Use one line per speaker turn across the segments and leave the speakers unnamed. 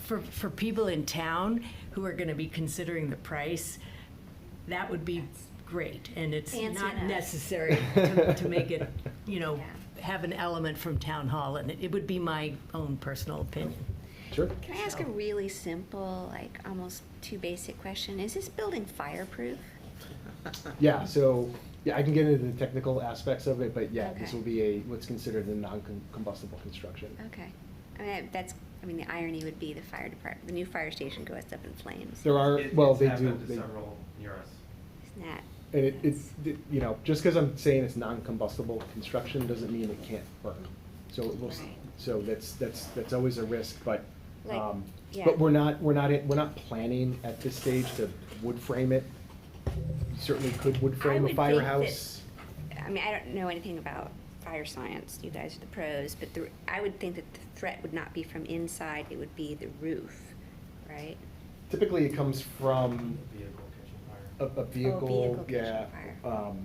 for, for people in town who are gonna be considering the price, that would be great, and it's
Fancy
not
enough.
necessary to, to make it, you know,
Yeah.
have an element from town hall, and it It would be my own personal opinion.
Sure.
Can I ask a really simple, like almost too basic question? Is this building fireproof?
Yeah, so, yeah, I can get into the technical aspects of it, but yeah, this
Okay.
will be a, what's considered a non-combustible construction.
Okay. I mean, that's, I mean, the irony would be the fire department, the new fire station goes up in flames.
There are,
It-
well,
it's
they do,
happened to
they,
Several near us.
Isn't that?
and it, it's, it- you know, just because I'm saying it's non-combustible construction doesn't mean it can't burn. So it will, s-
Right.
so that's, that's, that's always a risk, but,
Like,
um,
yeah.
but we're not, we're not, in- we're not planning at this stage to wood frame it. You Certainly could wood frame
would
a
think that-
firehouse.
I mean, I don't know anything about fire science. You guys are the pros, but the, I would think that the threat would not be from inside, it would be the roof, right?
Typically, it comes from
Vehicle kitchen fire.
a, a vehicle,
vehicle, kitchen
yeah,
fire.
um,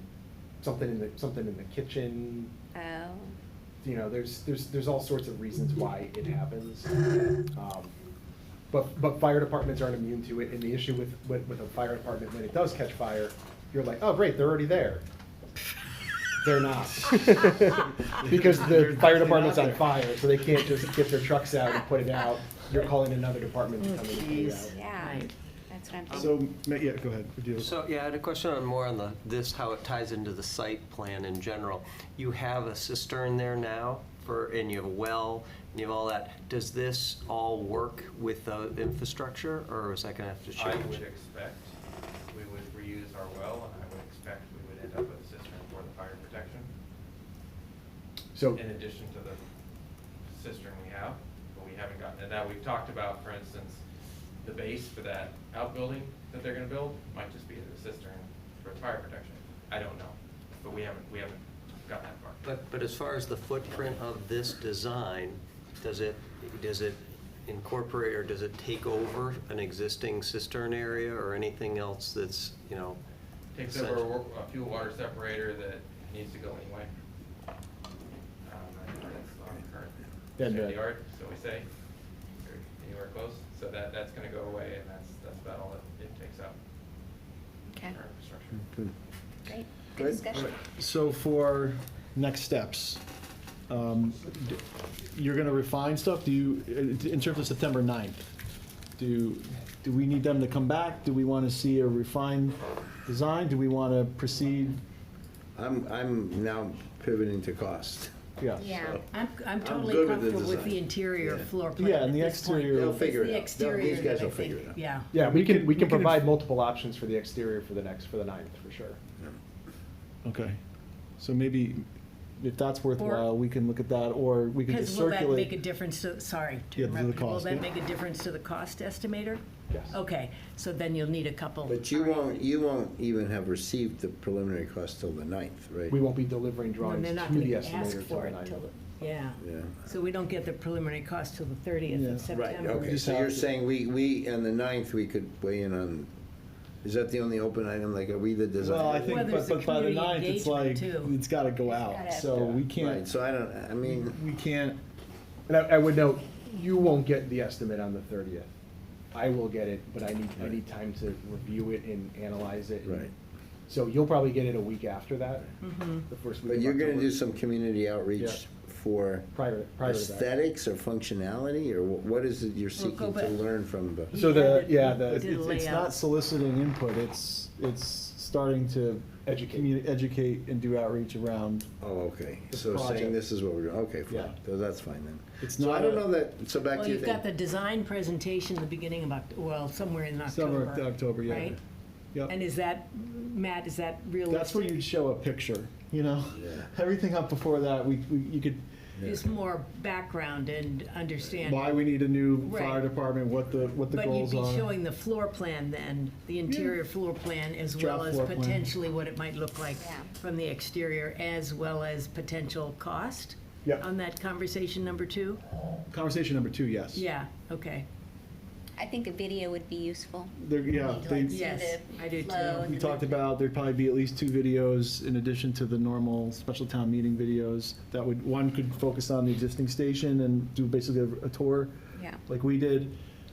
something in the, something in the kitchen,
Oh,
you know, there's, there's, there's all sorts of reasons why it happens. Um, But, but fire departments aren't immune to it, and the issue with, with, with a fire department, when it does catch fire, you're like, oh, great, they're already there. They're not. Because the fire department's on fire, so they can't just get their trucks out and put it out. You're calling another department to come in and put it out.
yeah,
Right.
that's what I'm thinking.
So, ma- yeah, go ahead. Do you-
So, yeah, I had a question on more on the, this, how it ties into the site plan in general. You have a cistern there now for, and you have a well, and you have all that. Does this all work with the infrastructure, or is that gonna have to
I
change?
would expect we would reuse our well, and I would expect we would end up with a cistern for the fire protection,
So,
in addition to the cistern we have, but we haven't gotten to that. We've talked about, for instance, the base for that outbuilding that they're gonna build might just be the cistern for fire protection. I don't know, but we haven't, we haven't gotten that far.
But, but as far as the footprint of this design, does it, does it incorporate, or does it take over an existing cistern area, or anything else that's, you know?
Takes over a
essential?
wa- a fuel water separator that needs to go anyway. Um, I think that's not current
Then the-
state yard, so we say, or anywhere close, so that, that's gonna go away, and that's, that's about all it, it takes out.
Okay,
Our infrastructure.
Good.
great, good
Good.
discussion.
So for next steps, um, d- you're gonna refine stuff, do you, in terms of September 9th, do, do we need them to come back? Do we wanna see a refined design? Do we wanna proceed?
I'm, I'm now pivoting to cost.
Yeah.
Yeah.
I'm, I'm totally
good with the
comfortable with the
design.
interior
Yeah.
floor plan
Yeah, and
at
the
this point.
exterior- They'll
It's
figure it
the
out. They'll-
exterior
these guys
that I
will figure
think-
it out.
Yeah.
yeah, we can, we can
we can-
provide multiple options for the exterior for the next, for the ninth, for sure.
Okay, so maybe if that's worthwhile, we can look at that, or we can just
Because will that make a
circulate.
difference to, sorry to
Yeah, to the
interrupt you, will
cost,
that
yeah.
make a difference to the cost estimator?
Yes.
Okay, so then you'll need a couple.
But you won't, you won't even have received the preliminary cost till the ninth, right?
We won't be delivering
And
drawings
they're
to the
not gonna
estimator
ask
till
for
the
it
ninth.
till, yeah.
Yeah.
So we don't get the preliminary cost till the thirtieth
Yeah.
of
Right,
Right,
September.
okay, so you're saying we, we, on the ninth, we could weigh in on, is that the only open item, like, are we the design?
Well, I
Well,
think,
there's
but,
the
but by the
community
ninth, it's like,
engagement, too.
it's gotta go out,
gotta-
so we
Right,
can't,
so I don't, I mean,
we can't,
And I, I would note, you won't get the estimate on the thirtieth. I will get it, but I need, I need time to review it and analyze it.
Right.
So you'll probably get it a week after that, the first week
but
of
you're gonna
October.
do some community outreach
Yeah.
for
Prior, prior to that.
aesthetics or functionality, or wh- what is it you're
We'll go
seeking to
back.
learn from the?
So the, yeah,
It's,
the,
Did-
it's it's
layout.
not soliciting input, it's, it's starting to.
Educate.
communi- Educate and do outreach around,
Oh, okay,
The
so
project.
saying this is what we're doing, okay,
Yeah.
fine, so that's fine then.
It's
So I
not
don't
a-
know that, so back
Well,
to your
you've got the
thing.
design presentation the beginning of Oct, well, somewhere in
Somewhere
October.
in October, yeah.
Right?
yep.
And is that, Matt, is that realistic?
That's where you'd show a picture, you know?
Yeah.
Everything up before that, we, we, you could,
Is more background and understanding.
why we need a new fire
Right.
department, what the, what the
But you'd
goals
be
are.
showing the floor plan then, the interior floor plan, as well
Draft
as
floor plan.
potentially what it might look like
Yeah.
from the exterior, as well as potential cost?
Yeah.
On that conversation number two?
Conversation number two, yes.
Yeah, okay.
I think a video would be useful.
There, yeah,
Need to,
they,
like, see
Yes,
the
I do
flow
too.
and
we
the
talked about there'd probably be at least two videos in addition to the normal special town meeting videos. That would, one could focus on the existing station and do basically a- a tour.
Yeah.
like we did.